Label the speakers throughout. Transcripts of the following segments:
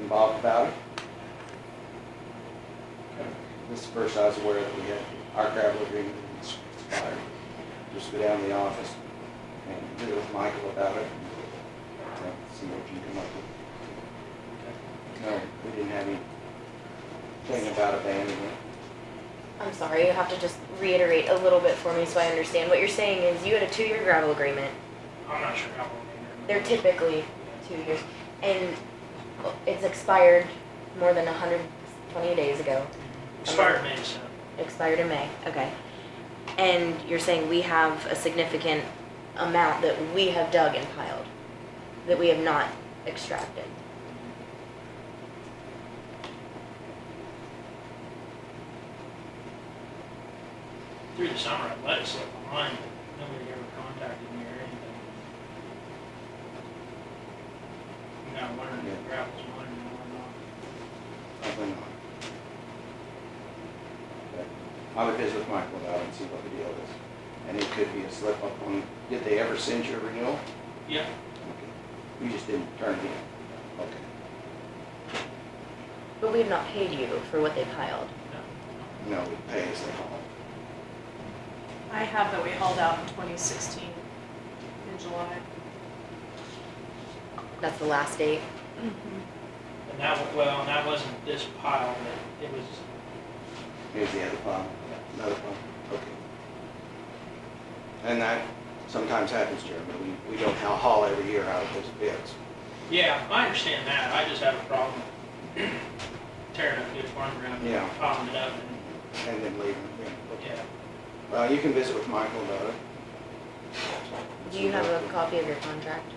Speaker 1: and Bob about it? Okay. This is the first I was aware that we had our gravel agreement expired. Just go down to the office and get with Michael about it and uh, see what you come up with. No, we didn't have anything about abandonment.
Speaker 2: I'm sorry, you have to just reiterate a little bit for me so I understand. What you're saying is you had a two-year gravel agreement.
Speaker 3: I'm not sure how long they
Speaker 2: They're typically two years, and it's expired more than 120 days ago.
Speaker 3: Expired May, so.
Speaker 2: Expired in May, okay. And you're saying we have a significant amount that we have dug and piled, that we have not extracted.
Speaker 3: Through the summer, I let it slip behind, but nobody ever contacted me or anything. And I learned that gravel's mine and I'm not.
Speaker 1: Probably not. But I would visit with Michael about it and see what the deal is. And it could be a slip up on, did they ever send you a renewal?
Speaker 3: Yeah,
Speaker 1: Okay. You just didn't turn it in? Okay.
Speaker 2: But we have not paid you for what they piled.
Speaker 3: no, no.
Speaker 1: No, we pay as they haul.
Speaker 4: I have that we hauled out in 2016 in July.
Speaker 2: That's the last date.
Speaker 3: And that, wa- well, and that wasn't this pile, but it was,
Speaker 1: Here's the other pile, another pile, okay. And that sometimes happens, Jeremy. We, we don't ha- haul every year out of those bids.
Speaker 3: yeah, I understand that. I just have a problem tearing up good farm ground
Speaker 1: Yeah.
Speaker 3: and piling it up and,
Speaker 1: And then leave them, yeah. okay.
Speaker 3: yeah.
Speaker 1: Well, you can visit with Michael about it.
Speaker 2: Do you have a copy of your contract?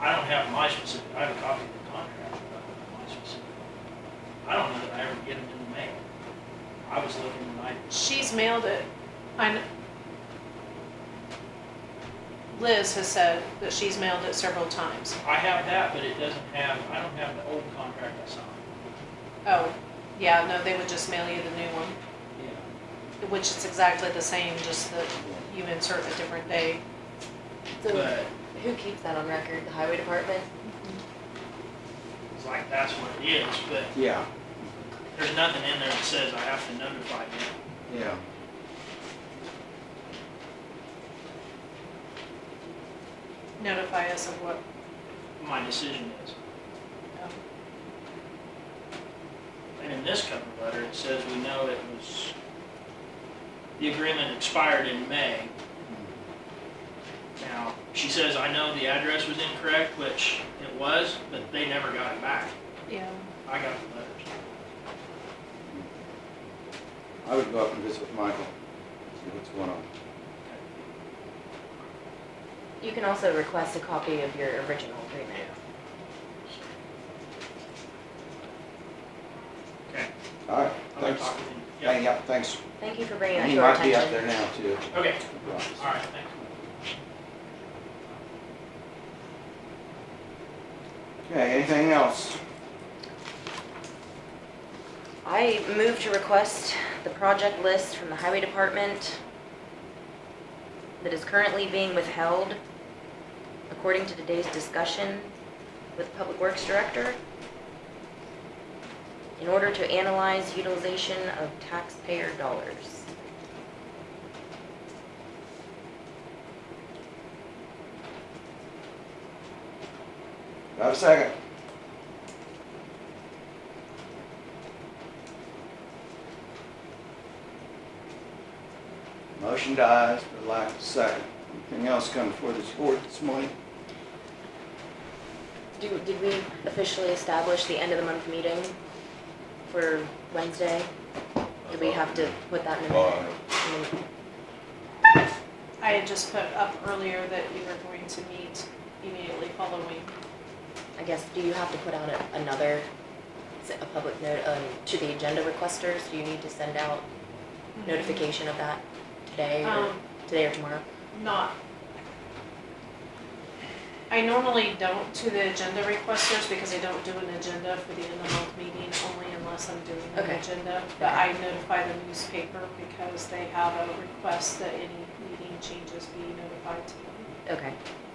Speaker 3: I don't have my specific, I have a copy of the contract, but I don't have my specific. I don't know that I ever get them in the mail. I was looking and I,
Speaker 4: She's mailed it. I kn- Liz has said that she's mailed it several times.
Speaker 3: I have that, but it doesn't have, I don't have the old contract I signed.
Speaker 4: Oh, yeah, no, they would just mail you the new one,
Speaker 3: Yeah.
Speaker 4: which is exactly the same, just that
Speaker 1: Yeah.
Speaker 4: you insert a different day.
Speaker 2: So
Speaker 3: But
Speaker 2: who keeps that on record? The highway department?
Speaker 3: it's like, that's what it is, but
Speaker 1: Yeah,
Speaker 3: there's nothing in there that says I have to notify them.
Speaker 1: yeah.
Speaker 4: Notify us of what,
Speaker 3: My decision is.
Speaker 4: um,
Speaker 3: And in this cover letter, it says we know it was, the agreement expired in May. Now, she says, I know the address was incorrect, which it was, but they never got it back.
Speaker 4: yeah.
Speaker 3: I got the letters.
Speaker 1: I would go up and visit with Michael, see what's going on.
Speaker 2: You can also request a copy of your original agreement.
Speaker 3: Okay,
Speaker 1: All right,
Speaker 3: I'm gonna
Speaker 1: thanks.
Speaker 3: talk to him.
Speaker 1: Hang up, thanks.
Speaker 2: Thank you for bringing that
Speaker 1: He
Speaker 2: to our
Speaker 1: might
Speaker 2: attention.
Speaker 1: be up there now, too.
Speaker 3: Okay,
Speaker 1: Right.
Speaker 3: all right, thanks.
Speaker 1: Okay, anything else?
Speaker 2: I move to request the project list from the highway department that is currently being withheld according to today's discussion with Public Works Director in order to analyze utilization of taxpayer dollars.
Speaker 1: Do I have a second? Motion dies for lack of second. Anything else come before this board this morning?
Speaker 2: Do, did we officially establish the end of the month meeting for Wednesday? Did we have to put that in the
Speaker 1: Oh,
Speaker 2: minute? in the-
Speaker 4: I had just put up earlier that we were going to meet immediately following.
Speaker 2: I guess, do you have to put out a- another, is it a public note, um, to the agenda requesters? Do you need to send out notification of that today or,
Speaker 4: Mm-hmm. Um,
Speaker 2: today or tomorrow?
Speaker 4: not. I normally don't to the agenda requesters because I don't do an agenda for the end of month meeting, only unless I'm doing an
Speaker 2: Okay.
Speaker 4: agenda. But
Speaker 2: Okay.
Speaker 4: I notify the newspaper because they have a request that any meeting changes be notified to them.
Speaker 2: Okay,